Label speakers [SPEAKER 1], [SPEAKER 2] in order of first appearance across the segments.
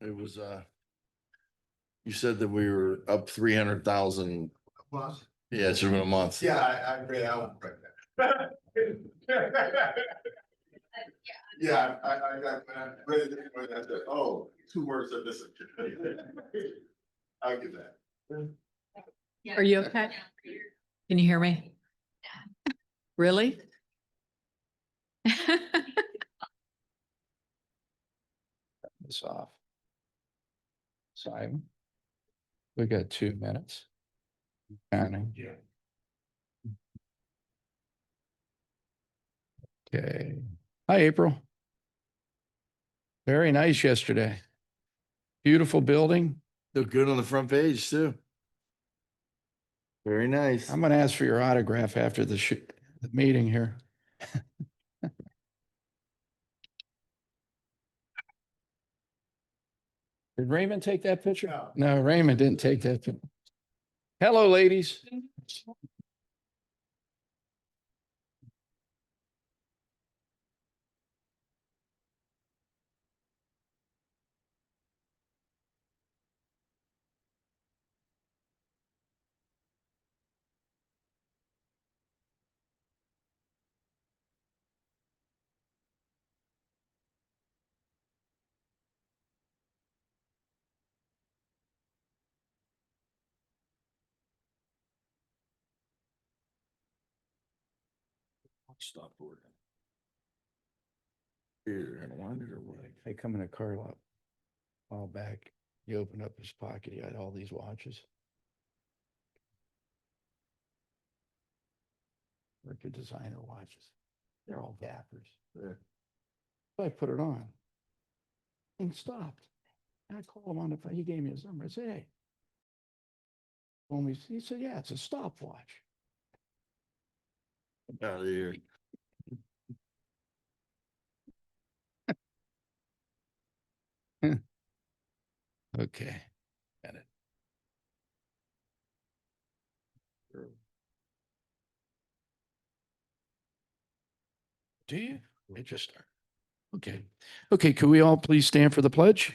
[SPEAKER 1] It was, uh, you said that we were up three hundred thousand,
[SPEAKER 2] Well,
[SPEAKER 1] yeah, it's been a month.
[SPEAKER 2] yeah, I, I agree, I won't break that. Yeah, I, I, I, I, read it when I said, oh, two words are missing. I'll give that.
[SPEAKER 3] Are you okay? Can you hear me? Really?
[SPEAKER 4] this off. Simon? We got two minutes. Counting.
[SPEAKER 2] Yeah.
[SPEAKER 4] Okay. Hi, April. Very nice yesterday. Beautiful building.
[SPEAKER 1] Looked good on the front page too. Very nice.
[SPEAKER 4] I'm gonna ask for your autograph after the sh- the meeting here. Did Raymond take that picture?
[SPEAKER 2] No.
[SPEAKER 4] No, Raymond didn't take that. pic- Hello, ladies.
[SPEAKER 1] Stop boarding. You're gonna want it or what?
[SPEAKER 4] They come in a car lot. a While back, he opened up his pocket, he had all these watches. Work of designer watches. They're all dappers.
[SPEAKER 1] Yeah.
[SPEAKER 4] So I put it on. And stopped. And I called him on the, phone. he gave me his number. I said, hey. Told me, he said, yeah, it's a stopwatch.
[SPEAKER 1] Out of here.
[SPEAKER 4] Okay. Got it. Do you? It just started. Okay. Okay, could we all please stand for the pledge?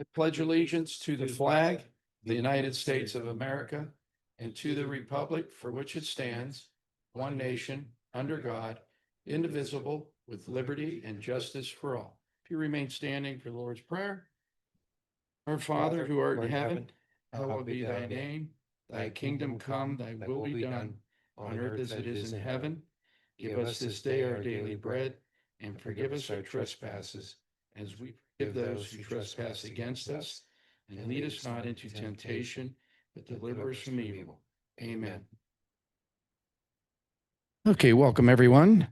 [SPEAKER 4] I pledge allegiance to the flag, the United States of America, and to the republic for which it stands, one nation, under God, indivisible, with liberty and justice for all. If you remain standing for the Lord's Prayer. Our Father who art in heaven, hallowed be thy name. Thy kingdom come, thy will be done, on earth as it is in heaven. Give us this day our daily bread, and forgive us our trespasses, as we forgive those who trespass against us. And lead us not into temptation, but deliver us from evil. Amen. Okay, welcome, everyone.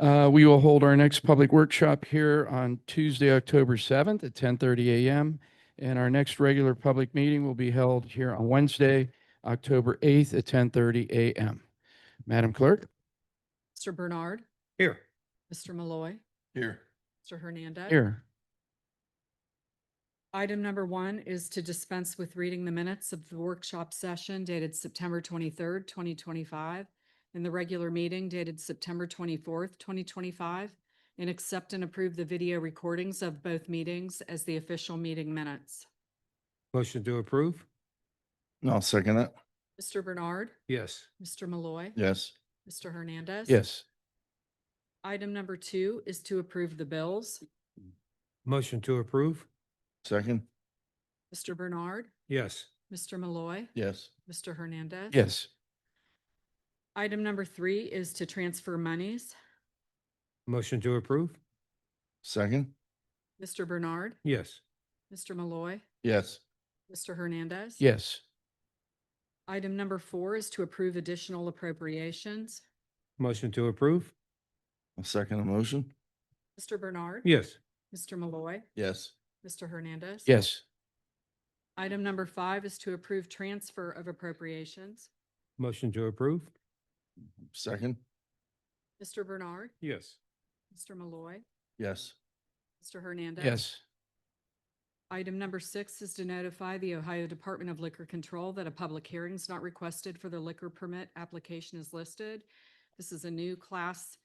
[SPEAKER 4] Uh, we will hold our next public workshop here on Tuesday, October seventh at ten thirty AM. And our next regular public meeting will be held here on Wednesday, October eighth at ten thirty AM. Madam Clerk?
[SPEAKER 3] Mr. Bernard,
[SPEAKER 4] Here.
[SPEAKER 3] Mr. Malloy,
[SPEAKER 1] Here.
[SPEAKER 3] Mr. Hernandez.
[SPEAKER 4] Here.
[SPEAKER 3] Item number one is to dispense with reading the minutes of the workshop session dated September twenty-third, twenty twenty-five, and the regular meeting dated September twenty-fourth, twenty twenty-five, and accept and approve the video recordings of both meetings as the official meeting minutes.
[SPEAKER 5] Motion to approve?
[SPEAKER 1] I'll second that.
[SPEAKER 3] Mr. Bernard,
[SPEAKER 5] Yes.
[SPEAKER 3] Mr. Malloy,
[SPEAKER 1] Yes.
[SPEAKER 3] Mr. Hernandez.
[SPEAKER 4] Yes.
[SPEAKER 3] Item number two is to approve the bills.
[SPEAKER 5] Motion to approve?
[SPEAKER 1] Second?
[SPEAKER 3] Mr. Bernard,
[SPEAKER 5] Yes.
[SPEAKER 3] Mr. Malloy,
[SPEAKER 1] Yes.
[SPEAKER 3] Mr. Hernandez.
[SPEAKER 4] Yes.
[SPEAKER 3] Item number three is to transfer monies.
[SPEAKER 5] Motion to approve?
[SPEAKER 1] Second?
[SPEAKER 3] Mr. Bernard,
[SPEAKER 5] Yes.
[SPEAKER 3] Mr. Malloy,
[SPEAKER 1] Yes.
[SPEAKER 3] Mr. Hernandez.
[SPEAKER 4] Yes.
[SPEAKER 3] Item number four is to approve additional appropriations.
[SPEAKER 5] Motion to approve?
[SPEAKER 1] I'll second the motion.
[SPEAKER 3] Mr. Bernard.
[SPEAKER 5] Yes.
[SPEAKER 3] Mr. Malloy,
[SPEAKER 1] Yes.
[SPEAKER 3] Mr. Hernandez.
[SPEAKER 4] Yes.
[SPEAKER 3] Item number five is to approve transfer of appropriations.
[SPEAKER 5] Motion to approve?
[SPEAKER 1] Second?
[SPEAKER 3] Mr. Bernard,
[SPEAKER 5] Yes.
[SPEAKER 3] Mr. Malloy,
[SPEAKER 1] Yes.
[SPEAKER 3] Mr. Hernandez.
[SPEAKER 4] Yes.
[SPEAKER 3] Item number six is to notify the Ohio Department of Liquor Control that a public hearing is not requested for the liquor permit application is listed. This is a new class